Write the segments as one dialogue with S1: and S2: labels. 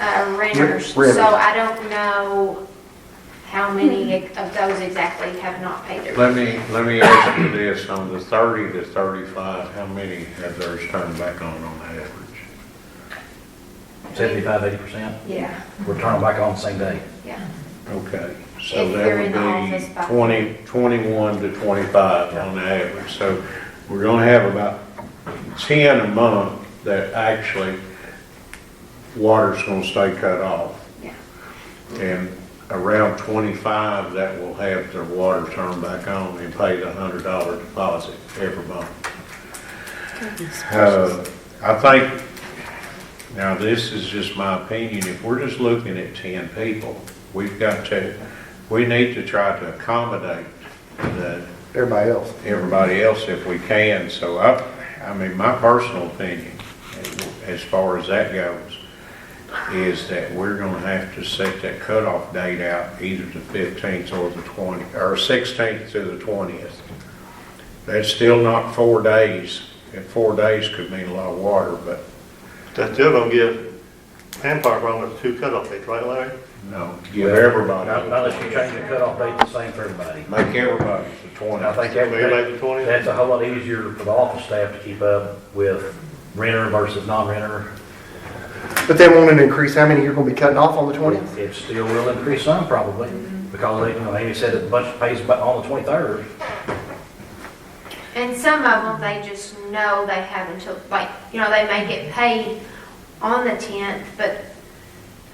S1: uh, renters.
S2: Renters.
S1: So I don't know how many of those exactly have not paid their.
S3: Let me, let me ask you this, on the thirty to thirty-five, how many have theirs turned back on on average?
S4: Seventy-five, eighty percent,
S1: Yeah,
S4: we're turning back on the same day.
S1: yeah.
S3: Okay, so
S1: If
S3: that
S1: they're
S3: would
S1: in the office
S3: be
S1: by-
S3: 20 21 to twenty-five on average. So we're gonna have about ten a month that actually water's gonna stay cut off.
S1: Yeah.
S3: And around twenty-five that will have their water turned back on and pay the hundred dollar deposit every month. Uh, I think, now this is just my opinion, if we're just looking at ten people, we've got to, we need to try to accommodate the,
S2: Everybody else.
S3: everybody else if we can. So I, I mean, my personal opinion, as far as that goes, is that we're gonna have to set that cutoff date out either the fifteenth or the twenty, or sixteenth to the twentieth. That's still not four days, and four days could mean a lot of water, but
S5: That's still gonna give Empire Run those two cutoff dates, right Larry?
S3: no, give everybody.
S4: Not not unless you change the cutoff date the same for everybody.
S3: Make everybody the
S4: And I
S3: twentieth.
S4: think
S5: Everybody the
S4: that,
S5: 20th?
S4: that's a whole lot easier for the office staff to keep up with renter versus non-renter.
S2: But they won't increase how many you're gonna be cutting off on the twentieth?
S4: It still will increase some probably, because they, you know, Amy said that the bunch pays about on the twenty-third.
S1: And some of them, they just know they have until, like, you know, they may get paid on the tenth, but,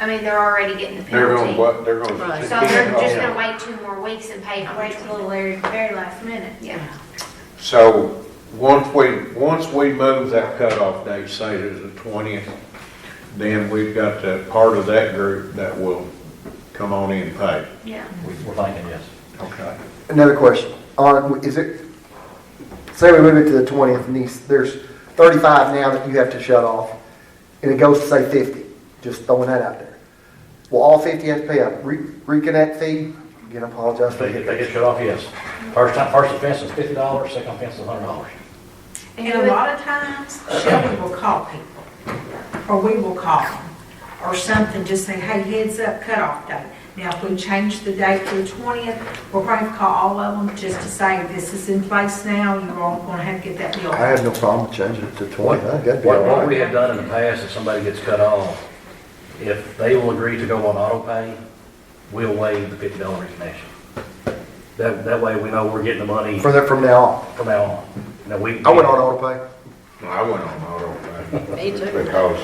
S1: I mean, they're already getting the
S3: They're
S1: penalty.
S3: gonna, what, Oh, they're gonna.
S6: Right.
S1: So they're just gonna wait two more weeks and pay it on
S6: Wait
S1: the
S6: till the
S1: twentieth.
S6: very, very last minute.
S1: Yeah,
S3: So, once we, once we move that cutoff date, say to the twentieth, then we've got the part of that group that will come on in and pay.
S1: yeah.
S4: We're thinking, yes.
S3: Okay.
S2: Another question, on, is it, say we move it to the twentieth and these, there's thirty-five now that you have to shut off, and it goes to say fifty, just throwing that out there. Will all fifty have to pay a re- reconnect fee? Again, I apologize
S4: If
S2: for
S4: they get,
S2: the.
S4: they get shut off, yes. First time, first offense is fifty dollars, second offense is hundred dollars.
S6: And a lot of times, Shelby will call people, or we will call them, or something, just say, hey, heads up, cutoff date. Now, if we change the date to the twentieth, we're going to call all of them just to say, this is in place now, you're all going to have to get that bill.
S2: I have no problem changing it to twenty, that'd be all
S4: What, what we
S2: right.
S4: have done in the past, if somebody gets cut off, if they will agree to go on auto pay, we'll waive the fifty dollar connection. That, that way we know we're getting the money
S2: From there, from now on.
S4: from now on. Now, we.
S2: I went on auto pay.
S3: I went on auto pay.
S6: Me too.
S3: Because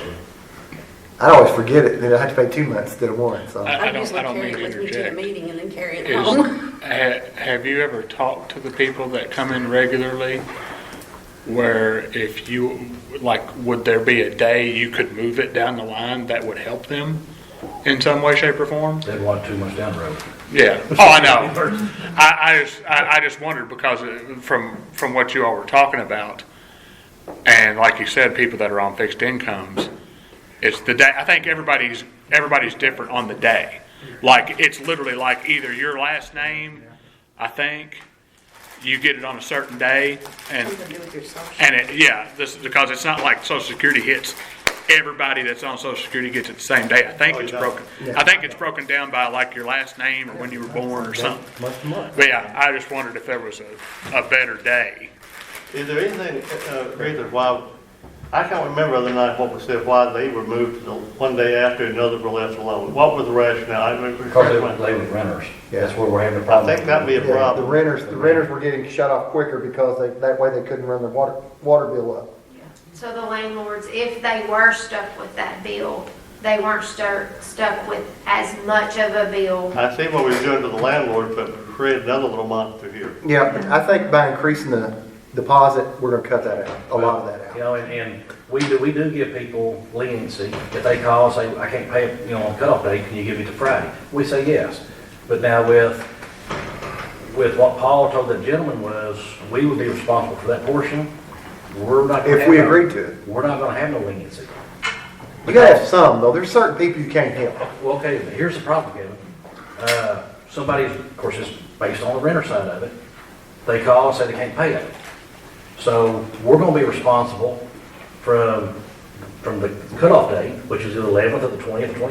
S2: I always forget it, then I had to pay two months instead of one, so.
S7: I- I don't, I don't mean to
S6: a
S7: interject.
S6: meeting and then carry
S7: Is, ha- have you ever talked to the people that come in regularly where if you, like, would there be a day you could move it down the line that would help them in some way, shape, or form?
S4: Didn't want too much down the road.
S7: Yeah. Oh, I know. I, I just, I, I just wondered because uh, from, from what you all were talking about, and like you said, people that are on fixed incomes, it's the day, I think everybody's, everybody's different on the day. Like, it's literally like either your last name, I think, you get it on a certain day, and and it, yeah, this, because it's not like social security hits, everybody that's on social security gets it the same day. I think it's broken, I think it's broken down by like your last name or when you were born or something.
S2: Month to month.
S7: But yeah, I just wondered if there was a, a better day.
S5: Is there anything, uh, reason why, I can't remember the other night what was said, why they were moved to the one day after another were left alone. What was the rationale? I remember.
S4: Because they were, they were renters. That's where we're having a
S5: I
S4: problem.
S5: think that'd be a
S2: Yeah, the
S5: problem.
S2: renters, the renters were getting shut off quicker because they, that way they couldn't run their water, water bill up.
S1: So the landlords, if they were stuck with that bill, they weren't stuck, stuck with as much of a bill.
S5: I see what we're doing to the landlord, but create another little monster here.
S2: Yeah, but I think by increasing the deposit, we're gonna cut that out, a lot of that
S4: You know,
S2: out.
S4: and, and we do, we do give people leniency. If they call and say, I can't pay, it, you know, on cutoff day, can you give me to Friday? We say yes. But now with, with what Paul told the gentleman was, we would be responsible for that portion. We're not. gonna
S2: If we
S4: have no-
S2: agree to it.
S4: We're not gonna have no leniency.
S2: You gotta have some, though, there's certain people you can't help.
S4: Well, okay, but here's the problem, Kevin. Uh, somebody's, of course, it's based on the renter side of it. They call and say they can't pay it. So we're gonna be responsible from, from the cutoff date, which is the eleventh or the twentieth, twenty